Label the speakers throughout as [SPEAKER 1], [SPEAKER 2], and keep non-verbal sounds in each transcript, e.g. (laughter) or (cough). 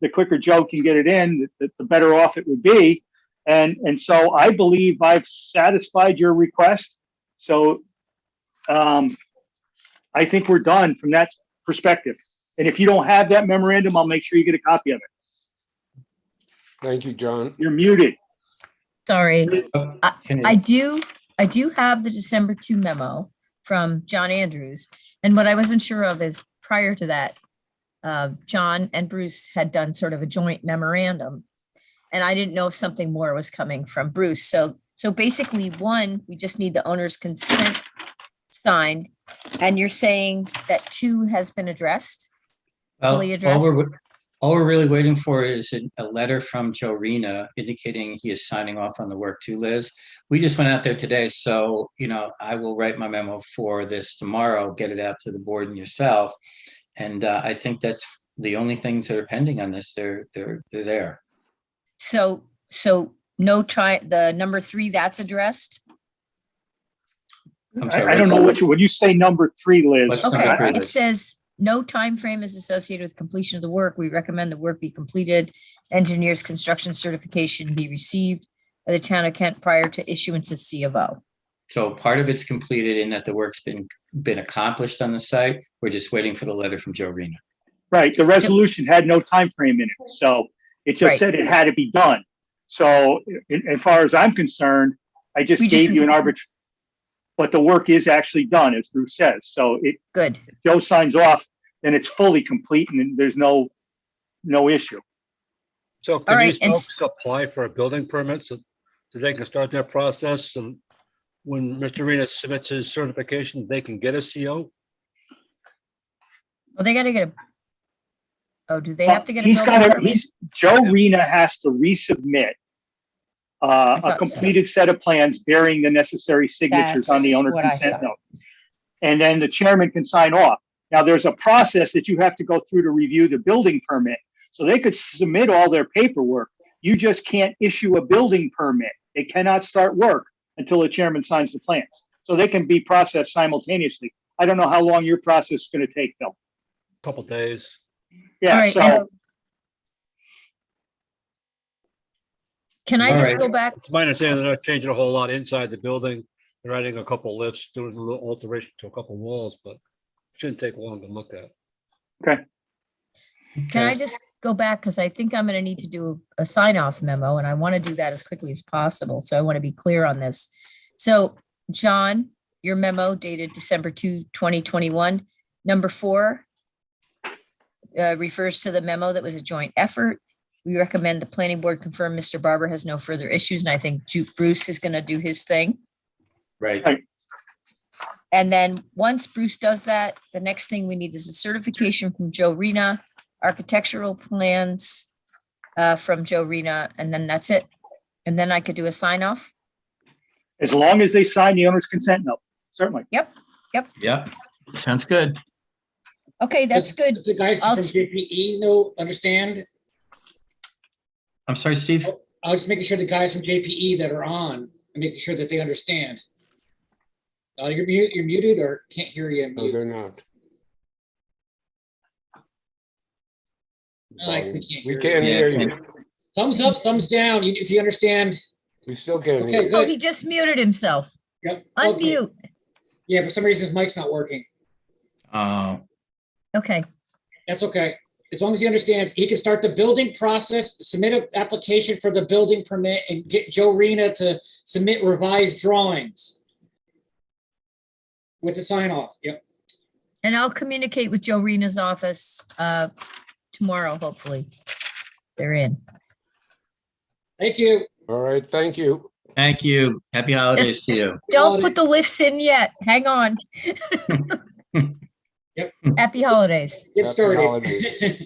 [SPEAKER 1] the quicker Joe can get it in, the, the better off it would be. And, and so I believe I've satisfied your request. So, um, I think we're done from that perspective. And if you don't have that memorandum, I'll make sure you get a copy of it.
[SPEAKER 2] Thank you, John.
[SPEAKER 1] You're muted.
[SPEAKER 3] Sorry,
[SPEAKER 4] Oh, Can
[SPEAKER 3] I
[SPEAKER 4] you,
[SPEAKER 3] do, I do have the December two memo from John Andrews. And what I wasn't sure of is prior to that, uh, John and Bruce had done sort of a joint memorandum. And I didn't know if something more was coming from Bruce. So, so basically, one, we just need the owner's consent signed. And you're saying that two has been addressed?
[SPEAKER 4] well,
[SPEAKER 3] fully
[SPEAKER 4] all we're,
[SPEAKER 3] addressed?
[SPEAKER 4] all we're really waiting for is an- a letter from Joe Rena indicating he is signing off on the work too, Liz. We just went out there today, so, you know, I will write my memo for this tomorrow, get it out to the board and yourself. And uh, I think that's the only things that are pending on this. They're, they're, they're there.
[SPEAKER 3] So, so no try, the number three, that's addressed?
[SPEAKER 4] I'm
[SPEAKER 1] I,
[SPEAKER 4] sorry,
[SPEAKER 1] I don't
[SPEAKER 4] what's-
[SPEAKER 1] know what you, when you say number three, Liz.
[SPEAKER 4] What's number
[SPEAKER 3] Okay,
[SPEAKER 1] I-
[SPEAKER 4] three?
[SPEAKER 3] it says, no time frame is associated with completion of the work. We recommend the work be completed. Engineer's construction certification be received by the town of Kent prior to issuance of C of O.
[SPEAKER 4] So part of it's completed in that the work's been, been accomplished on the site. We're just waiting for the letter from Joe Rena.
[SPEAKER 1] Right, the resolution had no time frame in it, so it just
[SPEAKER 3] Right.
[SPEAKER 1] said it had to be done. So, i- as far as I'm concerned, I just
[SPEAKER 3] We just-
[SPEAKER 1] gave you an arbit. But the work is actually done, as Bruce says, so it,
[SPEAKER 3] Good.
[SPEAKER 1] if Joe signs off, then it's fully complete and then there's no, no issue.
[SPEAKER 5] So
[SPEAKER 3] All
[SPEAKER 5] can
[SPEAKER 3] right,
[SPEAKER 5] these
[SPEAKER 3] and
[SPEAKER 5] folks apply for a building permit so so they can start their process and when Mr. Rena submits his certification, they can get a CO?
[SPEAKER 3] Well, they gotta get a. Oh, do they
[SPEAKER 1] Well,
[SPEAKER 3] have to get a
[SPEAKER 1] He's
[SPEAKER 3] building
[SPEAKER 1] got to,
[SPEAKER 3] permit?
[SPEAKER 1] he's, Joe Rena has to resubmit uh, a
[SPEAKER 3] thought so.
[SPEAKER 1] completed set of plans bearing the necessary signatures on the
[SPEAKER 3] That's
[SPEAKER 1] owner
[SPEAKER 3] what I
[SPEAKER 1] consent
[SPEAKER 3] thought.
[SPEAKER 1] note. And then the chairman can sign off. Now, there's a process that you have to go through to review the building permit. So they could submit all their paperwork. You just can't issue a building permit. They cannot start work until the chairman signs the plans. So they can be processed simultaneously. I don't know how long your process is going to take, though.
[SPEAKER 5] Couple days.
[SPEAKER 3] All
[SPEAKER 1] Yeah,
[SPEAKER 3] right,
[SPEAKER 1] so.
[SPEAKER 3] and- Can I
[SPEAKER 4] All
[SPEAKER 3] just
[SPEAKER 4] right.
[SPEAKER 3] go back?
[SPEAKER 5] It's my understanding they're not changing a whole lot inside the building. They're adding a couple lifts, doing a little alteration to a couple walls, but shouldn't take long to look at.
[SPEAKER 3] Can I
[SPEAKER 4] Okay.
[SPEAKER 3] just go back? Because I think I'm going to need to do a sign off memo and I want to do that as quickly as possible. So I want to be clear on this. So John, your memo dated December 2, 2021, number four uh, refers to the memo that was a joint effort. We recommend the planning board confirm Mr. Barber has no further issues. And I think Ju- Bruce is going to do his thing.
[SPEAKER 4] Right.
[SPEAKER 3] And then once Bruce does that, the next thing we need is a certification from Joe Rena, architectural plans uh, from Joe Rena, and then that's it. And then I could do a sign off.
[SPEAKER 1] As long as they sign the owner's consent note, certainly.
[SPEAKER 4] Yep. Sounds good.
[SPEAKER 3] Okay, that's good.
[SPEAKER 6] The guys
[SPEAKER 3] I'll-
[SPEAKER 6] from JPE know, understand?
[SPEAKER 4] I'm sorry, Steve.
[SPEAKER 6] I was making sure the guys from JPE that are on, I'm making sure that they understand. Uh, you're muted, you're muted or can't hear you.
[SPEAKER 2] No,
[SPEAKER 6] Mute.
[SPEAKER 2] they're not.
[SPEAKER 6] I like- we can't
[SPEAKER 2] We
[SPEAKER 6] hear
[SPEAKER 2] can't
[SPEAKER 4] you.
[SPEAKER 2] hear
[SPEAKER 4] Yeah,
[SPEAKER 2] you.
[SPEAKER 6] Thumbs up, thumbs down, you- if you understand.
[SPEAKER 2] We still can't
[SPEAKER 6] Okay,
[SPEAKER 2] hear.
[SPEAKER 3] Oh, he
[SPEAKER 6] good.
[SPEAKER 3] just muted himself.
[SPEAKER 6] Yep, okay.
[SPEAKER 3] Unmute.
[SPEAKER 6] Yeah, for some reason his mic's not working.
[SPEAKER 4] Oh,
[SPEAKER 3] Okay,
[SPEAKER 6] That's okay. As long as he understands, he can start the building process, submit an application for the building permit and get Joe Rena to submit revised drawings. With the sign off, yep.
[SPEAKER 3] and I'll communicate with Joe Rena's office uh, tomorrow, hopefully. They're in.
[SPEAKER 6] Thank you.
[SPEAKER 2] All right, thank you.
[SPEAKER 4] thank you. Happy holidays to you.
[SPEAKER 3] Don't put the lifts in yet. Hang on.
[SPEAKER 6] (laughs) Yep.
[SPEAKER 3] Happy holidays.
[SPEAKER 6] Get
[SPEAKER 2] Happy
[SPEAKER 6] started. (laughs)
[SPEAKER 2] holidays.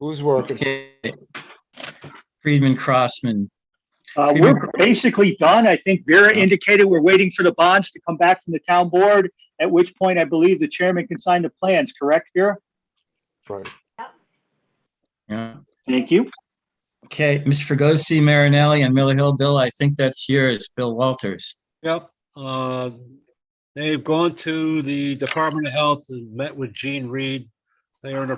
[SPEAKER 2] Who's working?
[SPEAKER 4] Okay. Friedman Crossman.
[SPEAKER 1] Uh,
[SPEAKER 4] Even-
[SPEAKER 1] we're basically done. I think Vera indicated we're waiting for the bonds to come back from the town board, at which point I believe the chairman can sign the plans, correct, Vera?
[SPEAKER 2] Right.
[SPEAKER 4] Yeah.
[SPEAKER 1] Thank you.
[SPEAKER 4] Okay, Mr. Fregosi, Marinelli, and Miller Hill. Bill, I think that's yours. Bill Walters.
[SPEAKER 5] Yep, uh, they've gone to the Department of Health and met with Gene Reed. They are in a